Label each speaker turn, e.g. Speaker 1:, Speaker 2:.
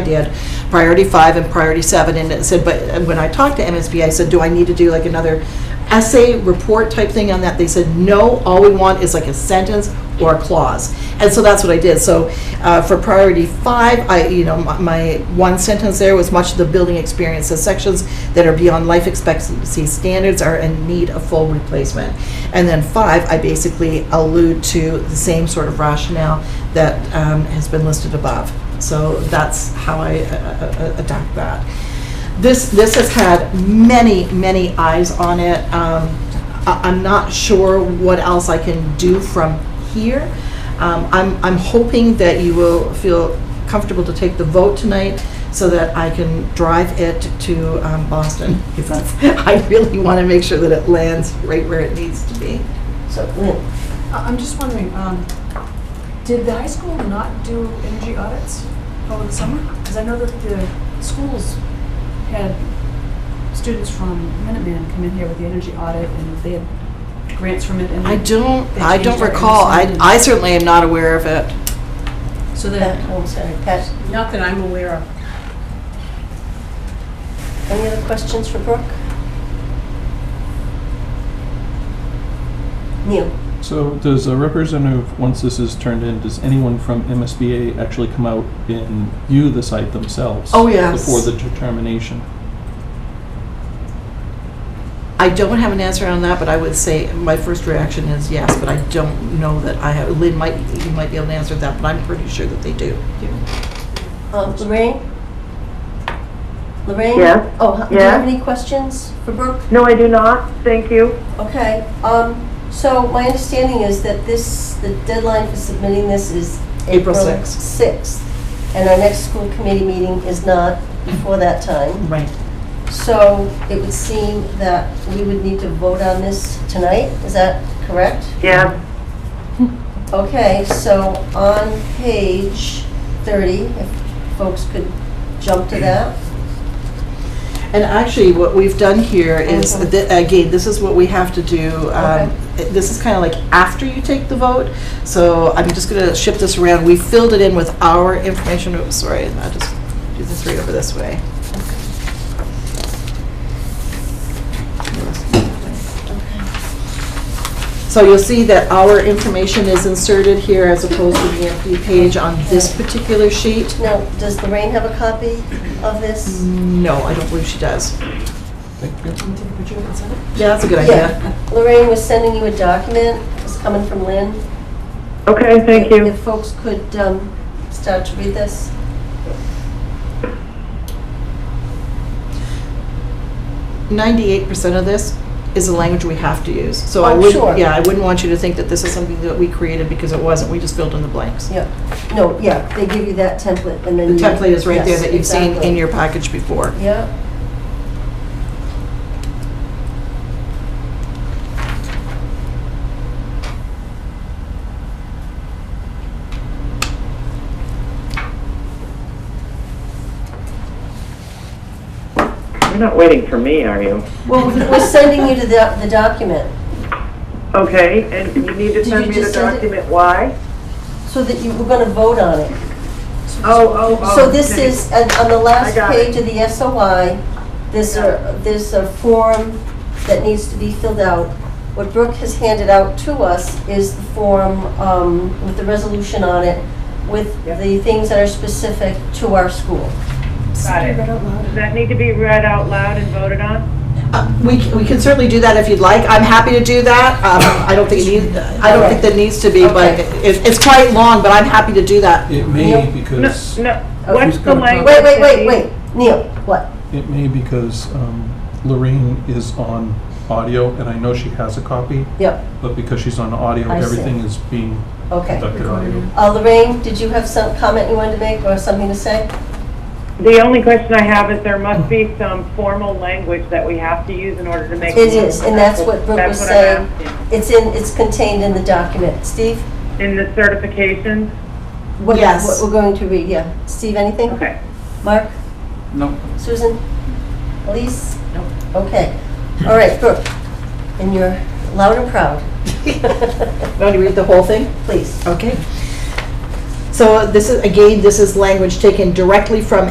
Speaker 1: did priority five and priority seven, and it said, but and when I talked to MSBA, I said, do I need to do like another essay report type thing on that? They said, no, all we want is like a sentence or a clause. And so that's what I did. So uh, for priority five, I, you know, my- my one sentence there was much of the building experience, the sections that are beyond life expectancy standards are in need of full replacement. And then five, I basically allude to the same sort of rationale that um, has been listed above. So that's how I uh, uh, uh, attack that. This, this has had many, many eyes on it. Um, I- I'm not sure what else I can do from here. Um, I'm, I'm hoping that you will feel comfortable to take the vote tonight so that I can drive it to um, Boston. Because I really want to make sure that it lands right where it needs to be.
Speaker 2: So, Lynn,
Speaker 3: I- Oh, I'm just wondering, um, did the high school not do energy audits over the summer? Because I know that the schools had students from Minuteman come in here with the energy audit, and they had grants from it, and...
Speaker 1: I don't,
Speaker 3: they
Speaker 1: I don't
Speaker 3: changed our
Speaker 1: recall. I,
Speaker 3: understanding.
Speaker 1: I certainly am not aware of it.
Speaker 3: So
Speaker 2: Pat,
Speaker 3: that,
Speaker 2: I'm sorry, Pat,
Speaker 3: not that I'm aware of.
Speaker 2: any other questions for Brooke? Neil?
Speaker 4: So does a representative, once this is turned in, does anyone from MSBA actually come out and view the site themselves?
Speaker 1: Oh, yes.
Speaker 4: Before the determination?
Speaker 1: I don't have an answer on that, but I would say, my first reaction is yes, but I don't know that I have, Lynn might, you might be able to answer that, but I'm pretty sure that they do.
Speaker 2: Um, Lorraine? Lorraine?
Speaker 5: Yes.
Speaker 2: Oh, h- do you have
Speaker 5: Yes.
Speaker 2: any questions for Brooke?
Speaker 5: No, I do not, thank you.
Speaker 2: Okay, um, so my understanding is that this, the deadline for submitting this is
Speaker 1: April
Speaker 2: April
Speaker 1: 6th.
Speaker 2: 6th. And our next school committee meeting is not before that time.
Speaker 1: Right.
Speaker 2: So it would seem that we would need to vote on this tonight, is that correct?
Speaker 5: Yeah,
Speaker 2: Okay, so on page 30, if folks could jump to that.
Speaker 1: And actually, what we've done here is,
Speaker 2: Mhm.
Speaker 1: thi- again, this is what we have to do. um, This is kind of like after you take the vote, so I'm just going to shift this around. We filled it in with our information, Oops, sorry, I'll just do this right over this way. So you'll see that our information is inserted here as opposed to the empty page on this particular sheet.
Speaker 2: Now, does Lorraine have a copy of this?
Speaker 1: No, I don't believe she does.
Speaker 4: Thank you.
Speaker 3: Can you take a picture of it, send it?
Speaker 1: Yeah, that's a good idea.
Speaker 2: Yeah, Lorraine was sending you a document, it's coming from Lynn.
Speaker 5: okay, thank you.
Speaker 2: If folks could um, start to read this.
Speaker 1: ninety-eight percent of this is the language we have to use. So I
Speaker 2: Oh,
Speaker 1: would,
Speaker 2: sure.
Speaker 1: not yeah, I wouldn't want you to think that this is something that we created because it wasn't, we just filled in the blanks.
Speaker 2: Yeah, no, yeah, they give you that template and
Speaker 1: The
Speaker 2: then. you-
Speaker 1: template is right there
Speaker 2: Yes,
Speaker 1: that you've seen
Speaker 2: exactly.
Speaker 1: in your package before.
Speaker 2: Yeah,
Speaker 5: You're not waiting for me, are you?
Speaker 2: well, we're sending you to the, the document
Speaker 5: Okay, and you need to
Speaker 2: Did
Speaker 5: send
Speaker 2: you
Speaker 5: me the
Speaker 2: just send it?
Speaker 5: document, why?
Speaker 2: so that you, we're gonna vote on it.
Speaker 5: Oh, oh, oh.
Speaker 2: So this
Speaker 5: okay.
Speaker 2: is, and on the last
Speaker 5: I got it.
Speaker 2: page of the SOI, there's a, there's a form that needs to be filled out. What Brooke has handed out to us is the form um, with the resolution on it, with
Speaker 5: Yep.
Speaker 2: the things that are specific to our school.
Speaker 6: Got it. Does that need to be read out loud and voted on?
Speaker 1: Uh, We, c- we can certainly do that if you'd like. I'm happy to do that. Um, I don't think it needs, I don't think that needs to be, but
Speaker 2: Okay.
Speaker 1: it, it's quite long, but I'm happy to do that.
Speaker 4: It
Speaker 2: Neil?
Speaker 4: may
Speaker 6: No,
Speaker 4: because,
Speaker 6: no, what's the
Speaker 4: Who's gonna-
Speaker 6: language?
Speaker 2: Oh, Wait, wait,
Speaker 6: that
Speaker 2: wait,
Speaker 6: the-
Speaker 2: wait, Neil, what?
Speaker 4: it may because um, Lorraine is on audio, and I know she has a copy,
Speaker 2: Yep,
Speaker 4: but because she's on audio,
Speaker 2: I see.
Speaker 4: everything is being
Speaker 2: okay.
Speaker 4: conducted audio.
Speaker 2: Uh, Lorraine, did you have some comment you wanted to make or something to say?
Speaker 6: The only question I have is there must be some formal language that we have to use in order to make.
Speaker 2: It is, and that's what Brooke
Speaker 6: That's
Speaker 2: was
Speaker 6: what I'm
Speaker 2: saying.
Speaker 6: asking.
Speaker 2: It's in, it's contained in the document. Steve?
Speaker 6: In the certification?
Speaker 2: what-
Speaker 1: Yes.
Speaker 2: What we're going to read, yeah. Steve, anything?
Speaker 6: Okay.
Speaker 2: Mark?
Speaker 4: No.
Speaker 2: Susan? Elise? Okay. All right, Brooke, and you're loud and proud.
Speaker 1: Want to read the whole thing?
Speaker 2: Please.
Speaker 1: Okay. So this is, again, this is language taken directly from